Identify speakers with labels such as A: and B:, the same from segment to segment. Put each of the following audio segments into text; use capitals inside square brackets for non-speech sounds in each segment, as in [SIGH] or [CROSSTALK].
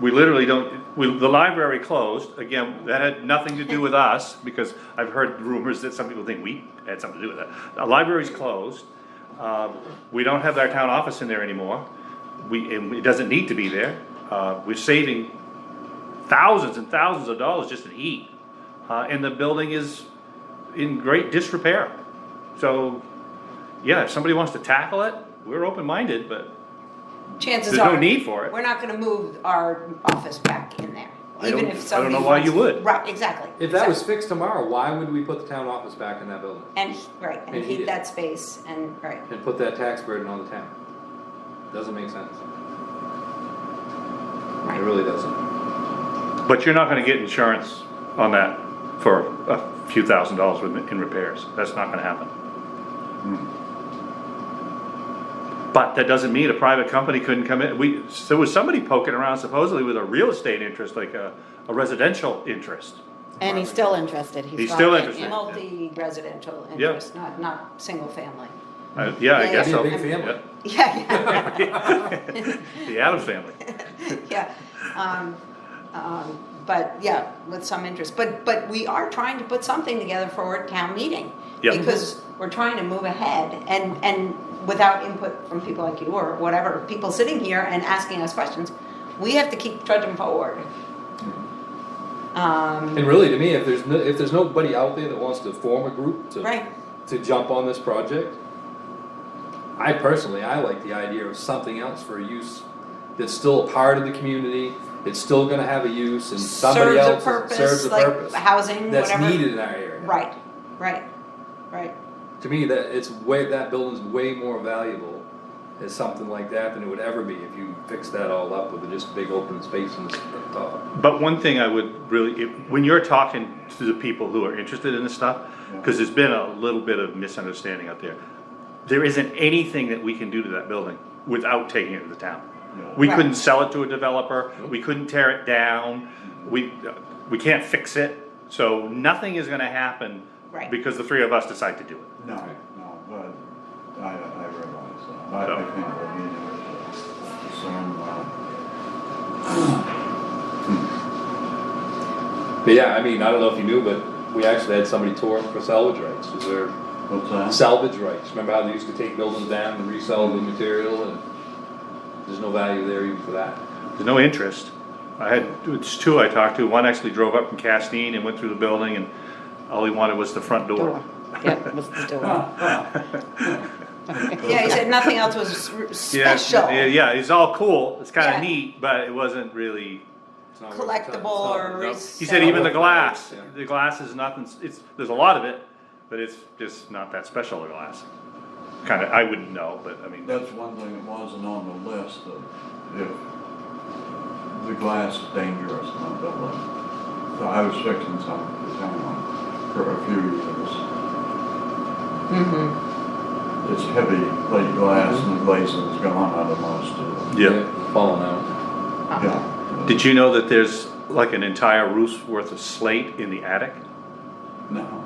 A: We literally don't, we, the library closed, again, that had nothing to do with us, because I've heard rumors that some people think we had something to do with that. The library's closed, uh, we don't have our town office in there anymore, we, and it doesn't need to be there. Uh, we're saving thousands and thousands of dollars just in heat, uh, and the building is in great disrepair. So, yeah, if somebody wants to tackle it, we're open-minded, but
B: Chances
A: There's no
B: are.
A: need for it.
B: We're not gonna move our office back in there.
A: I don't-
B: even if
A: I don't know
B: somebody
A: why you
B: wants-
A: would.
B: Right, exactly.
C: If that was
B: exactly.
C: fixed tomorrow, why would we put the town office back in that building?
B: And, he- right, and
C: And he
B: heat
C: did.
B: that space and, right.
C: And put that tax burden on the town? Doesn't make sense. It really doesn't.
A: But you're not gonna get insurance on that for a few thousand dollars with- in repairs, that's not gonna happen. But that doesn't mean a private company couldn't come in, we, there was somebody poking around supposedly with a real estate interest, like a, a residential interest.
D: And he's still interested.
A: He's
D: got
A: still
D: it.
A: interested.
B: Multi-residential interest, not, not single family.
A: Uh, Yeah, I
B: Yeah,
A: guess
C: Be a
A: so.
C: big family.
A: Yeah.
B: [LAUGHS]
A: [LAUGHS]
B: Yeah,
A: The Adams family,
B: yeah, [LAUGHS] yeah. Um, um, But, yeah, with some interest, but, but we are trying to put something together for a town meeting.
A: Yeah.
B: Because we're trying to move ahead and, and without input from people like you or whatever, people sitting here and asking us questions, we have to keep trudging forward. Um,
C: And really, to me, if there's, no- if there's nobody out there that wants to form a group to.
B: Right.
C: To jump on this project, I personally, I like the idea of something else for a use that's still a part of the community, it's still gonna have a use and somebody
B: serves a
C: else serves
B: purpose,
C: a
B: like
C: purpose.
B: housing, whatever.
C: That's needed in our area.
B: Right, right,
C: [LAUGHS]
B: right.
C: To me, that, it's way, that building's way more valuable as something like that than it would ever be if you fixed that all up with just big open space in the s- the top.
A: but one thing I would really, if- when you're talking to the people who are interested in this stuff, cause there's been a little bit of misunderstanding out there. There isn't anything that we can do to that building without taking it to the town. We
B: Right.
A: couldn't sell it to a developer, we couldn't tear it down, we, we can't fix it, so nothing is gonna happen.
B: Right.
A: Because the three of us decide to do it.
E: No, no, but I, I realize that. I I think we're meeting with some, uh,
C: But yeah, I mean, I don't know if you knew, but we actually had somebody tore up for salvage rights, was there
E: what's that?
C: salvage rights, remember how they used to take buildings down and resell the material and there's no value there even for that.
A: There's no interest. I had, it's two I talked to, one actually drove up from Castine and went through the building and all he wanted was the front door.
D: Door. Yeah, was the door.
B: Yeah, he said nothing else was r-
A: Yeah,
B: special,
A: Yeah, yeah, it's all cool, it's kinda
B: Yeah.
A: neat, but it wasn't really,
C: It's not worth the time. It's
B: collectible
C: not-
B: or.
C: no.
A: he said even the
B: resell-
A: glass,
C: Yeah.
A: the glass is nothing, it's, there's a lot of it, but it's just not that special, the glass. Kinda, I wouldn't know, but I mean,
E: That's one thing that wasn't on the list of if the glass is dangerous in that building. So I was fixing some, for someone for a few years. It's heavy plate glass and the glazing's gone out of most of it.
A: yeah.
C: Falling out.
E: Yeah.
A: Did you know that there's like an entire roof's worth of slate in the attic?
E: No. No,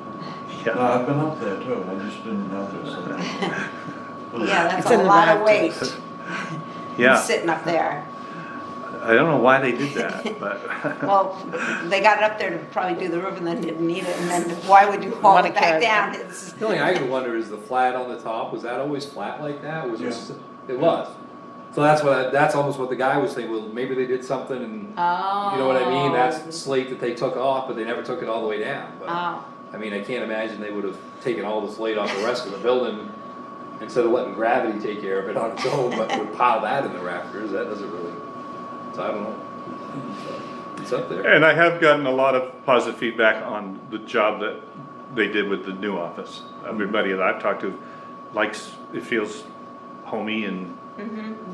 A: Yeah.
E: I've been up there too, I just didn't notice it.
B: [LAUGHS] Yeah, that's
D: It's
B: a
D: in the
B: lot of weight,
D: rafters.
A: Yeah,
B: sitting up there.
A: I don't know why they did that, but. [LAUGHS]
B: Well, they got it up there to probably do the roof and then didn't need it, and then why would you haul
D: Wanna
B: it
D: carry
B: back
D: it.
B: down? It's-
C: The only thing I can wonder is the flat on the top, was that always flat like that? Was it, s- it was. So that's what, I- that's almost what the guy was saying, well, maybe they did something and, you know what I mean?
B: Oh.
C: That's slate that they took off, but they never took it all the way down. But,
B: Oh,
C: I mean, I can't imagine they would have taken all the slate off the rest of the building instead of letting gravity take care of it on its own, but would pile that in the rafters, that doesn't really, so I don't know. It's up there.
A: And I have gotten a lot of positive feedback on the job that they did with the new office. Everybody that I've talked to likes, it feels homey and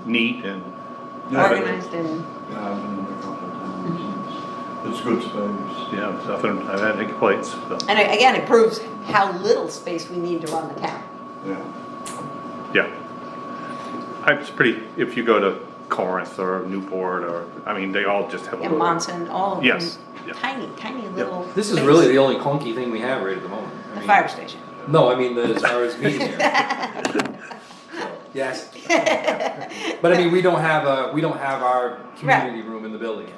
A: neat and.
B: organized and,
E: Yeah, I've been in a couple of times, it's, it's good space.
A: Yeah, nothing, I've had any complaints, so,
B: and a- again, it proves how little space we need to run the town.
E: Yeah.
A: yeah. I- It's pretty, if you go to Corinth or Newport or, I mean, they all just have a
B: And
A: little.
B: Monson, all of them,
A: Yes, yeah.
B: tiny, tiny little.
C: This is
B: space.
C: really the only clunky thing we have right at the moment. I
B: The
C: mean-
B: fire station.
C: No, I mean, the- as far as meeting here. Yes. But I mean, we don't have a, we don't have our community room in the building